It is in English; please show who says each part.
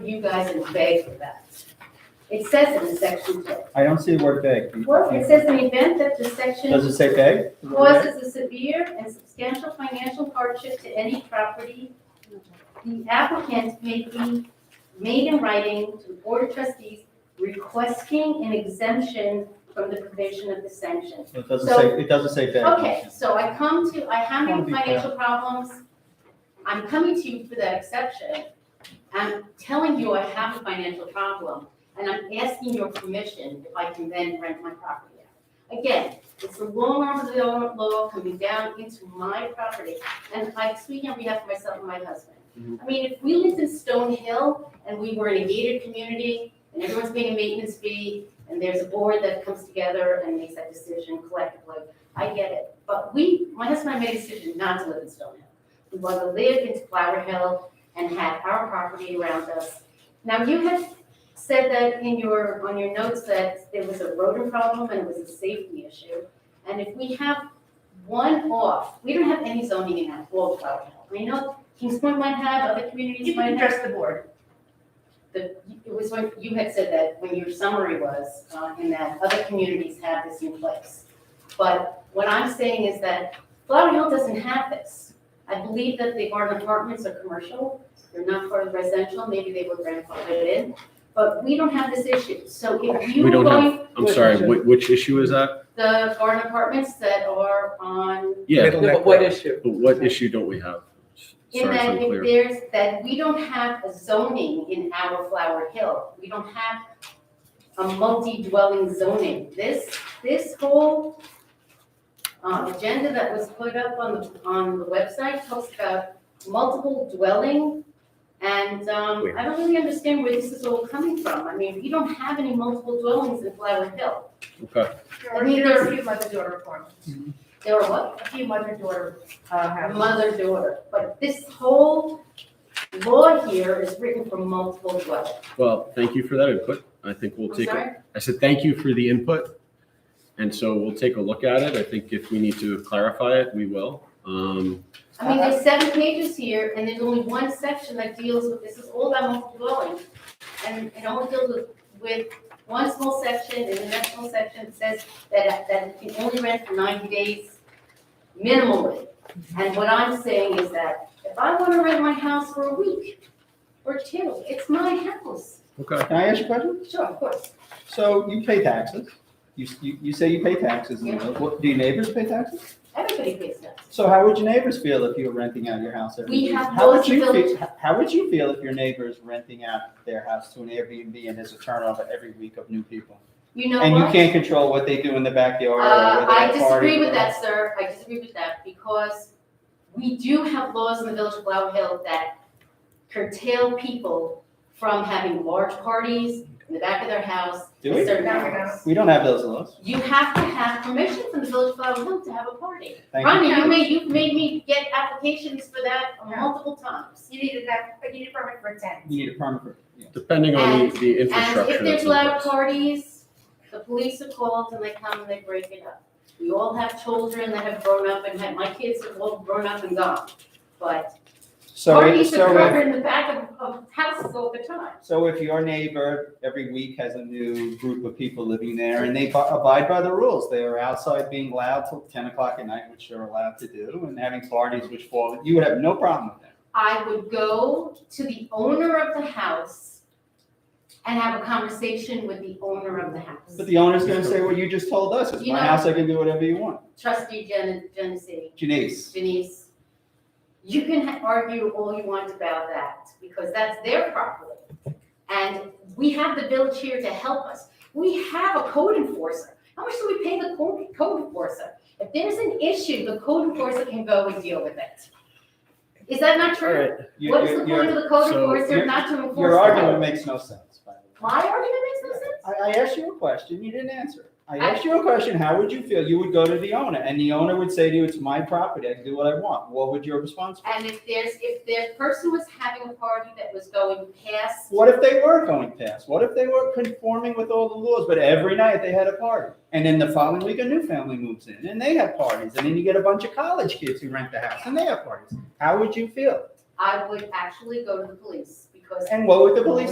Speaker 1: you guys and beg for that. It says in the section, two.
Speaker 2: I don't see the word beg.
Speaker 1: well, it says in the event that the section
Speaker 2: Does it say beg?
Speaker 1: causes a severe and substantial financial hardship to any property, the applicant may be made in writing to the board of trustees requesting an exemption from the provision of the sanction.
Speaker 2: It doesn't
Speaker 1: So-
Speaker 2: say, it doesn't say beg.
Speaker 1: Okay, so I come to, I have
Speaker 2: That'll be
Speaker 1: any financial problems, I'm coming to you for that exception. I'm telling you I have a financial problem, and I'm asking your permission if I can then rent my property out. Again, it's the long arm of the law- law coming down into my property, and I'm speaking on behalf of myself and my husband.
Speaker 2: Mm-hmm.
Speaker 1: I mean, if we lived in Stone Hill and we were in a gated community, and everyone's paying a maintenance fee, and there's a board that comes together and makes that decision collectively, I get it, but we, my husband and I made a decision not to live in Stone Hill. We want to live in Flower Hill and have our property around us. Now, you had said that in your, on your notes that there was a rodent problem and it was a safety issue. And if we have one off, we don't have any zoning in our whole Flower Hill. I know Kings Point might have, other communities
Speaker 3: You
Speaker 1: might
Speaker 3: can
Speaker 1: have.
Speaker 3: address the board.
Speaker 1: The, it was when, you had said that, when your summary was, uh, in that other communities have this in place. But what I'm saying is that Flower Hill doesn't have this. I believe that the garden apartments are commercial, they're not part of residential, maybe they were grandfathered in, but we don't have this issue. So if you
Speaker 4: We
Speaker 1: were
Speaker 4: don't have-
Speaker 1: going,
Speaker 4: I'm sorry, which, which issue is that?
Speaker 1: the garden apartments that are on,
Speaker 4: Yeah,
Speaker 5: Yeah, but what issue?
Speaker 4: but what issue don't we have?
Speaker 1: in
Speaker 4: Sorry,
Speaker 1: that
Speaker 4: it's
Speaker 1: if
Speaker 4: unclear.
Speaker 1: there's, that we don't have a zoning in our Flower Hill. We don't have a multi-dwelling zoning. This, this whole uh, agenda that was put up on the, on the website talks about multiple dwelling. And um, I don't really understand where this is all coming from. I mean, we don't have any multiple dwellings in Flower Hill.
Speaker 4: Okay,
Speaker 3: There are- there are a few mother-daughter forms,
Speaker 1: There are what?
Speaker 3: a few mother-daughter uh,
Speaker 1: a
Speaker 3: houses.
Speaker 1: mother, daughter. But this whole law here is written for multiple dwelling.
Speaker 4: well, thank you for that input. I think we'll
Speaker 1: I'm
Speaker 4: take, a-
Speaker 1: sorry?
Speaker 4: I said, thank you for the input. And so we'll take a look at it. I think if we need to clarify it, we will. Um,
Speaker 1: I mean, there's seven pages here, and there's only one section that deals with, this is all about multiple dwelling. And it only deals with, with one small section, and the next small section says that, that you can only rent for ninety days minimally. And what I'm saying is that if I wanna rent my house for a week or two, it's my house.
Speaker 4: okay,
Speaker 2: Can I ask you a question?
Speaker 1: Sure, of course.
Speaker 2: So you pay taxes. You, you, you say you pay taxes. in
Speaker 1: Yeah.
Speaker 2: Lowell. What, do your neighbors pay taxes?
Speaker 1: Everybody pays taxes.
Speaker 2: So how would your neighbors feel if you were renting out your house every
Speaker 1: We
Speaker 2: week?
Speaker 1: have
Speaker 2: How would you
Speaker 1: those
Speaker 2: feel- How would you feel if your neighbor's renting out their house to an Airbnb and there's a turnover every week of new people?
Speaker 1: You know what?
Speaker 2: And you can't control what they do in the backyard or
Speaker 1: Uh,
Speaker 2: whether
Speaker 1: I
Speaker 2: they party
Speaker 1: disagree with
Speaker 2: or-
Speaker 1: that, sir, I disagree with that, because we do have laws in the village of Blau Hill that curtail people from having large parties in the back of their house.
Speaker 2: Do
Speaker 1: at
Speaker 2: we?
Speaker 1: certain
Speaker 3: No, we don't.
Speaker 1: hours.
Speaker 2: We don't have those laws.
Speaker 1: You have to have permission from the village of Blau Hill to have a party.
Speaker 2: Thank you.
Speaker 1: Ronnie, you made, you've made me get applications for that
Speaker 3: Yeah.
Speaker 1: multiple times.
Speaker 3: You needed that, but you need a permit for a tent.
Speaker 2: You need a permit for, yeah.
Speaker 4: depending on the, the
Speaker 1: And
Speaker 4: infrastructure.
Speaker 1: if there's
Speaker 4: that's in
Speaker 1: loud
Speaker 4: place.
Speaker 1: parties, the police are called and they come and they break it up. We all have children that have grown up and had, my kids have all grown up and gone. But
Speaker 2: So, if-
Speaker 1: parties are
Speaker 2: so if,
Speaker 1: covered in the back of, of houses all the time.
Speaker 2: so if your neighbor every week has a new group of people living there and they bu- abide by the rules, they are outside being loud till ten o'clock at night, which they're allowed to do, and having parties which fall, you would have no problem with that.
Speaker 1: I would go to the owner of the house and have a conversation with the owner of the house.
Speaker 2: But the owner's gonna say, well, you just told us, it's
Speaker 1: You
Speaker 2: my
Speaker 1: know-
Speaker 2: house, I can do whatever you want.
Speaker 1: Trustee Gen- Genesee,
Speaker 2: Janice,
Speaker 1: Denise, you can ha- argue all you want about that, because that's their property. And we have the village here to help us. We have a code enforcer. How much do we pay the code, code enforcer? If there's an issue, the code enforcer can go and deal with it. Is that not true?
Speaker 2: you-
Speaker 1: What is the
Speaker 2: you-
Speaker 1: point of the code
Speaker 4: so
Speaker 1: enforcer
Speaker 2: you're-
Speaker 1: not to enforce?
Speaker 2: your, your
Speaker 1: the
Speaker 2: argument
Speaker 1: code?
Speaker 2: makes no sense, by the way.
Speaker 1: My argument makes no sense?
Speaker 2: I, I asked you a question, you didn't answer. I
Speaker 1: I-
Speaker 2: asked you a question, how would you feel? You would go to the owner, and the owner would say to you, it's my property, I can do what I want. What would your response be?
Speaker 1: And if there's, if the person was having a party that was going past
Speaker 2: What if they were going past? What if they were conforming with all the laws, but every night they had a party? And then the following week, a new family moves in, and they have parties, and then you get a bunch of college kids who rent the house, and they have parties. How would you feel?
Speaker 1: I would actually go to the police
Speaker 6: because
Speaker 1: And what would the police